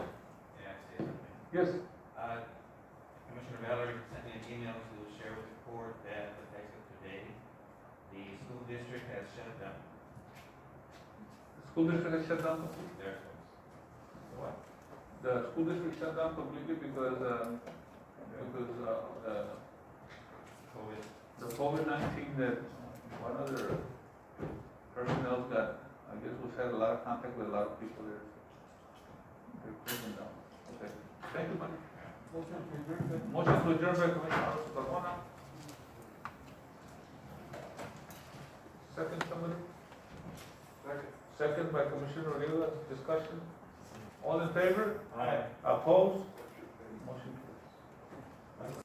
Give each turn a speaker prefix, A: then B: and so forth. A: Yes,
B: Uh, Commissioner Valerie sent me an email to share with the court that effective today, the school district has shut down
A: the school district has shut down, completely.
B: their schools. What?
A: the school district shut down completely because, uh, because uh, the,
B: COVID.
A: the COVID nineteen that one other personnel got, I guess, was had a lot of contact with a lot of people there. They're closing down. Okay, thank you, man. Motion to adjourn by Commissioner Alonso Carmona. Second, somebody? Second by Commissioner Odena, discussion. All in favor?
B: Aye.
A: Opposed? Motion